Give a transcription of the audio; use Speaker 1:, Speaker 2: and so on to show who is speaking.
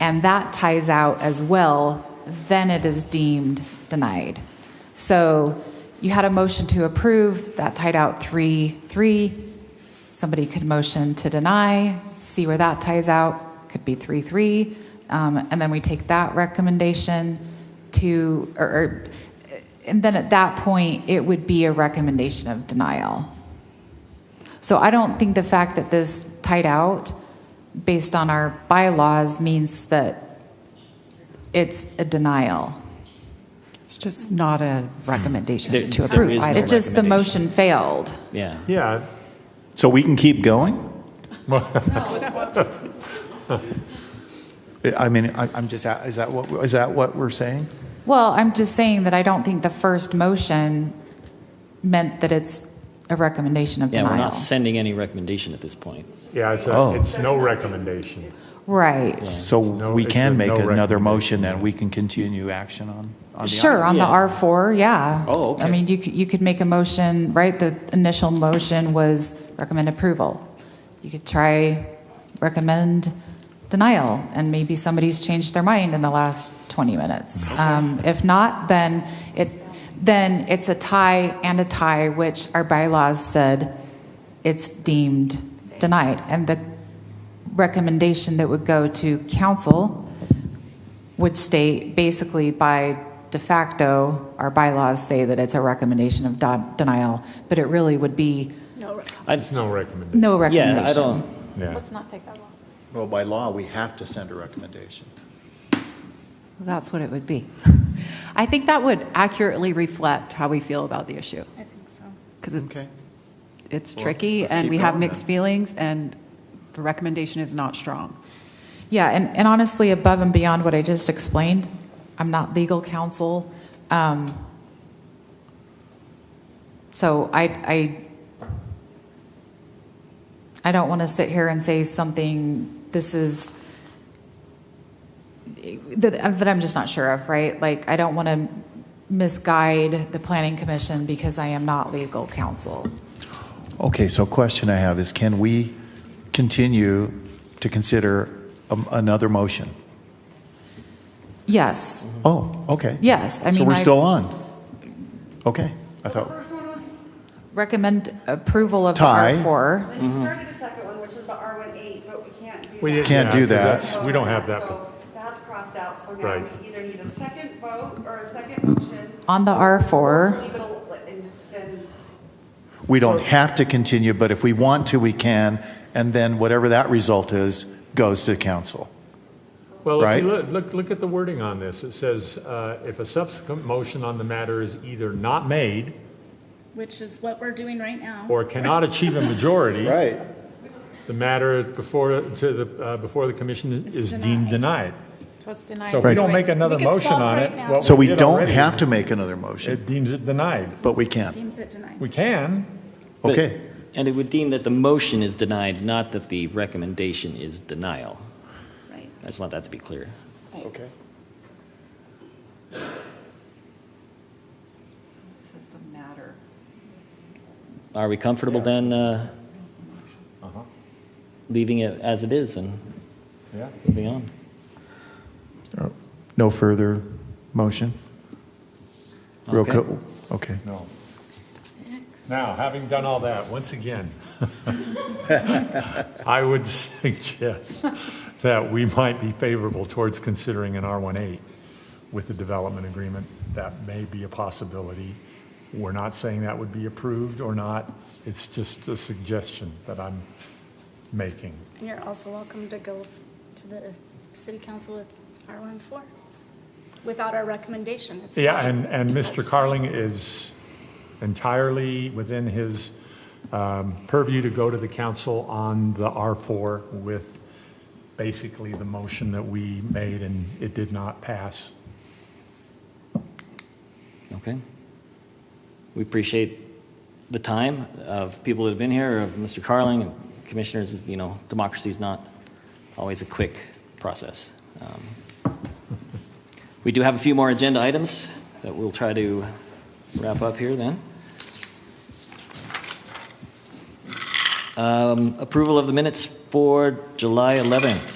Speaker 1: and that ties out as well, then it is deemed denied. So you had a motion to approve, that tied out 3 3. Somebody could motion to deny, see where that ties out, could be 3 3. Um, and then we take that recommendation to, or, or, and then at that point, it would be a recommendation of denial. So I don't think the fact that this tied out based on our bylaws means that it's a denial.
Speaker 2: It's just not a recommendation
Speaker 3: There-
Speaker 2: to
Speaker 3: there
Speaker 2: approve
Speaker 3: is no
Speaker 2: either.
Speaker 1: It just, the motion failed.
Speaker 3: Yeah.
Speaker 4: Yeah,
Speaker 5: So we can keep going? I mean, I- I'm just, a- is that what, is that what we're saying?
Speaker 1: Well, I'm just saying that I don't think the first motion meant that it's a recommendation of
Speaker 3: Yeah, we're
Speaker 1: denial.
Speaker 3: not sending any recommendation at this point.
Speaker 4: yeah, it's, a-
Speaker 5: Oh.
Speaker 4: it's no recommendation.
Speaker 1: Right.
Speaker 5: So
Speaker 4: No,
Speaker 5: we
Speaker 4: it's
Speaker 5: can
Speaker 4: a
Speaker 5: make
Speaker 4: no
Speaker 5: another
Speaker 4: recommendation.
Speaker 5: motion and we can continue action on, on the.
Speaker 1: Sure, on the
Speaker 3: Yeah.
Speaker 1: R4, yeah.
Speaker 5: Oh, okay.
Speaker 1: I mean, you could, you could make a motion, right? The initial motion was recommend approval. You could try recommend denial, and maybe somebody's changed their mind in the last 20 minutes. Um, If not, then it, then it's a tie and a tie, which our bylaws said it's deemed denied. And the recommendation that would go to council would state basically by de facto, our bylaws say that it's a recommendation of don- denial, but it really would be
Speaker 3: I-
Speaker 4: It's no recommendation,
Speaker 1: no recommendation.
Speaker 3: Yeah, I don't,
Speaker 4: yeah.
Speaker 6: Well, by law, we have to send a recommendation.
Speaker 2: That's what it would be. I think that would accurately reflect how we feel about the issue. I think so. Because it's, it's tricky,
Speaker 6: let's
Speaker 2: and
Speaker 6: keep
Speaker 2: we have
Speaker 6: going then.
Speaker 2: mixed feelings, and the recommendation is not strong.
Speaker 1: Yeah, and, and honestly, above and beyond what I just explained, I'm not legal counsel. Um, so I, I, I don't want to sit here and say something, this is, that, that I'm just not sure of, right? Like, I don't want to misguide the planning commission because I am not legal counsel.
Speaker 5: Okay, so question I have is can we continue to consider um, another motion?
Speaker 1: Yes,
Speaker 4: Mm-hmm.
Speaker 5: Oh, okay.
Speaker 1: yes, I mean.
Speaker 5: So we're
Speaker 1: I-
Speaker 5: still on? Okay, I thought,
Speaker 1: Recommend approval of the
Speaker 5: Tie.
Speaker 1: R4.
Speaker 7: We started a second one, which is the R18, but we can't do that.
Speaker 4: We didn't-
Speaker 5: Can't do
Speaker 4: yeah, 'cause
Speaker 5: that.
Speaker 4: that's- We don't have that.
Speaker 7: So that's crossed out, so now
Speaker 4: Right.
Speaker 7: we either need a second vote or a second motion.
Speaker 1: On the
Speaker 7: or
Speaker 1: R4,
Speaker 7: Leave it al- and just send,
Speaker 5: we don't have to continue, but if we want to, we can. And then whatever that result is, goes to council.
Speaker 4: Well, if
Speaker 5: Right.
Speaker 4: you look, look, look at the wording on this. It says, uh, if a subsequent motion on the matter is either not made
Speaker 8: which is what we're doing right now.
Speaker 4: or cannot achieve a majority,
Speaker 6: Right.
Speaker 4: the matter before, to the, uh, before the commission
Speaker 8: It's
Speaker 4: is deemed denied.
Speaker 8: So it's denied.
Speaker 4: So if we
Speaker 5: Right.
Speaker 4: don't make another
Speaker 8: We could
Speaker 4: motion
Speaker 8: stop
Speaker 4: on
Speaker 8: right
Speaker 4: it,
Speaker 8: now.
Speaker 4: what
Speaker 5: So we
Speaker 4: did
Speaker 5: don't
Speaker 4: already
Speaker 5: have
Speaker 4: is
Speaker 5: to make another motion,
Speaker 4: It deems it denied.
Speaker 5: but we can.
Speaker 8: Deems it denied.
Speaker 4: We can,
Speaker 3: but-
Speaker 5: Okay.
Speaker 3: And it would deem that the motion is denied, not that the recommendation is denial.
Speaker 8: Right.
Speaker 3: I just want that to be clear.
Speaker 6: Okay.
Speaker 2: This is the matter.
Speaker 3: Are we comfortable then uh, leaving it as it is and
Speaker 4: yeah.
Speaker 3: moving on?
Speaker 5: No further motion? Real
Speaker 3: Okay.
Speaker 5: co- Okay.
Speaker 4: No. Now, having done all that, once again, I would suggest that we might be favorable towards considering an R18 with the development agreement. That may be a possibility. We're not saying that would be approved or not. It's just a suggestion that I'm making.
Speaker 8: And you're also welcome to go to the city council with R14 without our recommendation. It's
Speaker 4: Yeah,
Speaker 8: fine.
Speaker 4: and, and Mr. Carling is entirely within his um, purview to go to the council on the R4 with basically the motion that we made and it did not pass.
Speaker 3: Okay. We appreciate the time of people that have been here, of Mr. Carling, and commissioners, you know, democracy is not always a quick process. Um, We do have a few more agenda items that we'll try to wrap up here then. Um, Approval of the minutes for July 11th.